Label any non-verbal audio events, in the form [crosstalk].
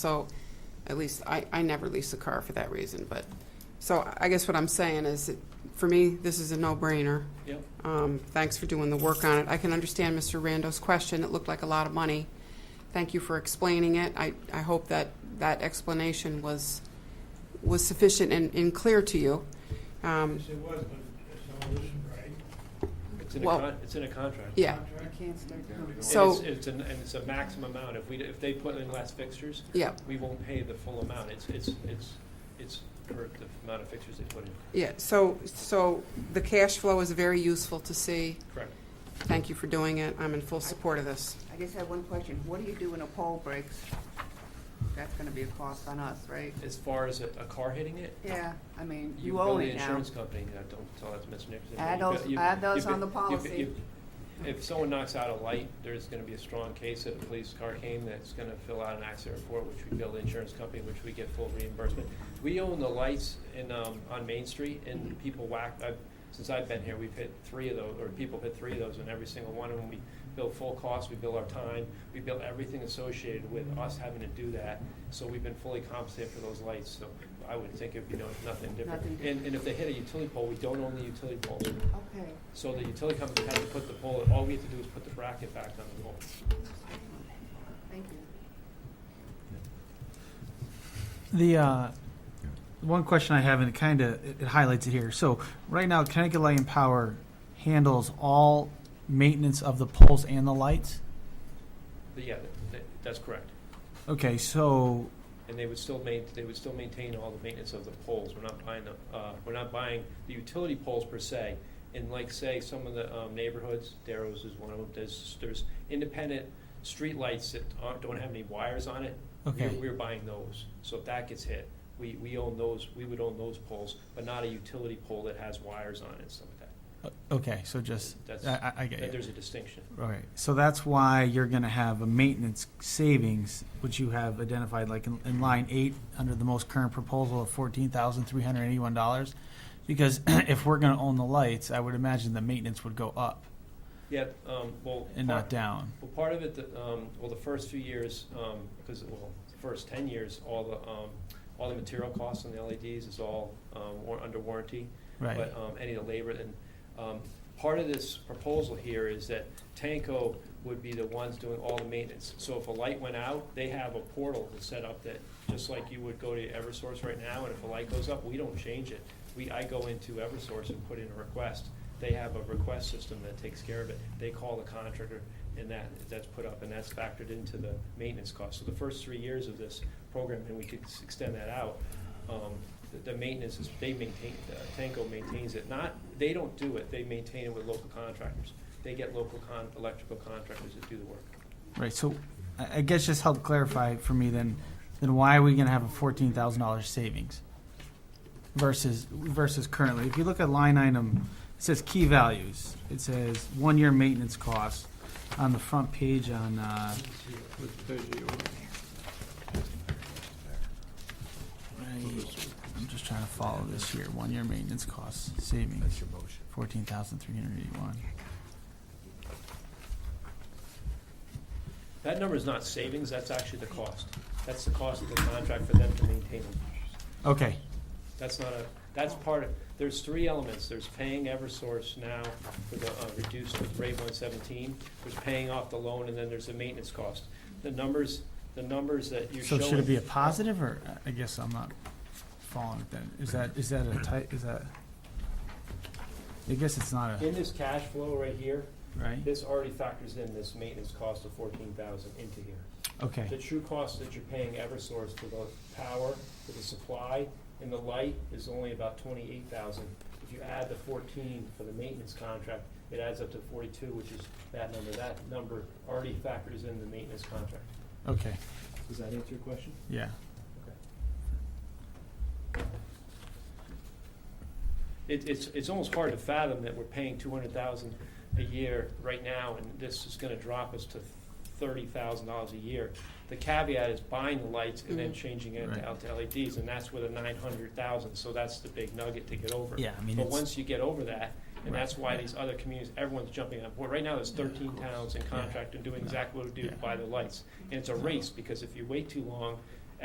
So at least I, I never lease a car for that reason, but, so I guess what I'm saying is, that for me, this is a no-brainer. Yep. Um, thanks for doing the work on it. I can understand Mr. Rando's question. It looked like a lot of money. Thank you for explaining it. I, I hope that that explanation was, was sufficient and, and clear to you. Um, Yes, it was, but it's all this, right? It's in a Well- con, it's in a contract. yeah, You Contract? can't start And conversations. So- it's- It's an, and it's a maximum amount. If we, d- if they put in less fixtures, yeah, we won't pay the full amount. It's, it's, it's, it's per the amount of fixtures they put in. yeah. So, so the cash flow is very useful to see. Correct. Thank you for doing it. I'm in full support of this. I just have one question. What do you do when a pole breaks? That's gonna be a cost on us, right? As far as a, a car hitting it, Yeah, I mean, you you owe bill the it now. insurance company. I don't tell that to Mr. Nixon. Add You bill- those- you- add those you bi- on the you bi- policy. you- If someone knocks out a light, there's gonna be a strong case that a police car came that's gonna fill out an accident report, which we bill the insurance company, which we get full reimbursement. We own the lights in, um, on Main Street and people whack, I've, since I've been here, we've hit three of those, or people hit three of those and every single one of them. We bill full cost, we bill our time, we bill everything associated with us having to do that. So we've been fully compensated for those lights, so I would think it'd be no, nothing different. Nothing different. And, and if they hit a utility pole, we don't own the utility pole. Okay. So the utility company has to put the pole, all we have to do is put the bracket back on the pole. Thank you. The uh, one question I have, and it kind of it it highlights it here. So right now, Connecticut Light and Power handles all maintenance of the poles and the lights. But yeah, that, that's correct. Okay, so And they would still main, they would still maintain all the maintenance of the poles. We're not buying the, uh, we're not buying the utility poles per se. In like, say, some of the, um, neighborhoods, Darrow's is one of them, there's, there's independent streetlights that aren't, don't have any wires on it. Okay. We're, we're buying those. So if that gets hit, we, we own those, we would own those poles, but not a utility pole that has wires on it and stuff like that. uh, okay, so just That's- I, I, I get That it. there's a distinction. All right, so that's why you're going to have a maintenance savings, which you have identified, like in, in line eight under the most current proposal of fourteen thousand three hundred eighty-one dollars. Because [clears throat] if we're going to own the lights, I would imagine the maintenance would go up Yeah, um, well. part- and not down. Well, part of it, that, um, well, the first few years, um, because, well, the first ten years, all the, um, all the material costs on the LEDs is all, um, war- under warranty. Right. But, um, any of the labor, and, um, part of this proposal here is that Tanco would be the ones doing all the maintenance. So if a light went out, they have a portal that's set up that, just like you would go to Eversource right now, and if a light goes up, we don't change it. We, I go into Eversource and put in a request. They have a request system that takes care of it. They call the contractor, and that, that's put up, and that's factored into the maintenance cost. So the first three years of this program, and we could s- extend that out, um, the- the maintenance is, they maintain, uh, Tanco maintains it, not, they don't do it, they maintain it with local contractors. They get local con, electrical contractors that do the work. Right, so I I guess just help clarify for me then, then why are we gonna have a fourteen thousand dollars savings? Versus, versus currently, if you look at line item, it says key values, it says one-year maintenance costs on the front page on, uh, right, I'm just trying to follow this here, one-year maintenance costs savings, fourteen thousand three hundred eighty-one. That number is not savings, that's actually the cost. That's the cost of the contract for them to maintain them. Okay, That's not a, that's part of, there's three elements. There's paying Eversource now for the uh, reduced rate one seventeen, there's paying off the loan, and then there's the maintenance cost. The numbers, the numbers that you're so showing. should it be a positive, or, I guess I'm not following it then, is that, is that a tight, is that? I guess it's not a, In this cash flow right here, right, This already factors in this maintenance cost of fourteen thousand into here. The okay, true cost that you're paying Eversource for the power, for the supply, and the light is only about twenty-eight thousand. If you add the fourteen for the maintenance contract, it adds up to forty-two, which is that number. That number already factors in the maintenance contract. okay, Does that answer your question? yeah, It, it's, it's almost hard to fathom that we're paying two hundred thousand a year right now, and this is gonna drop us to thirty thousand dollars a year. The caveat is buying the lights and then Mhm. changing it Right. out to LEDs, and that's with a nine hundred thousand, so that's the big nugget to get over. yeah, I mean, But it's, once you get over that, and Right. that's why these other communities, everyone's jumping on board. Right now, there's thirteen towns in contract and doing No. exactly what we do Yeah. by the lights. And it's a race, because if you wait too long,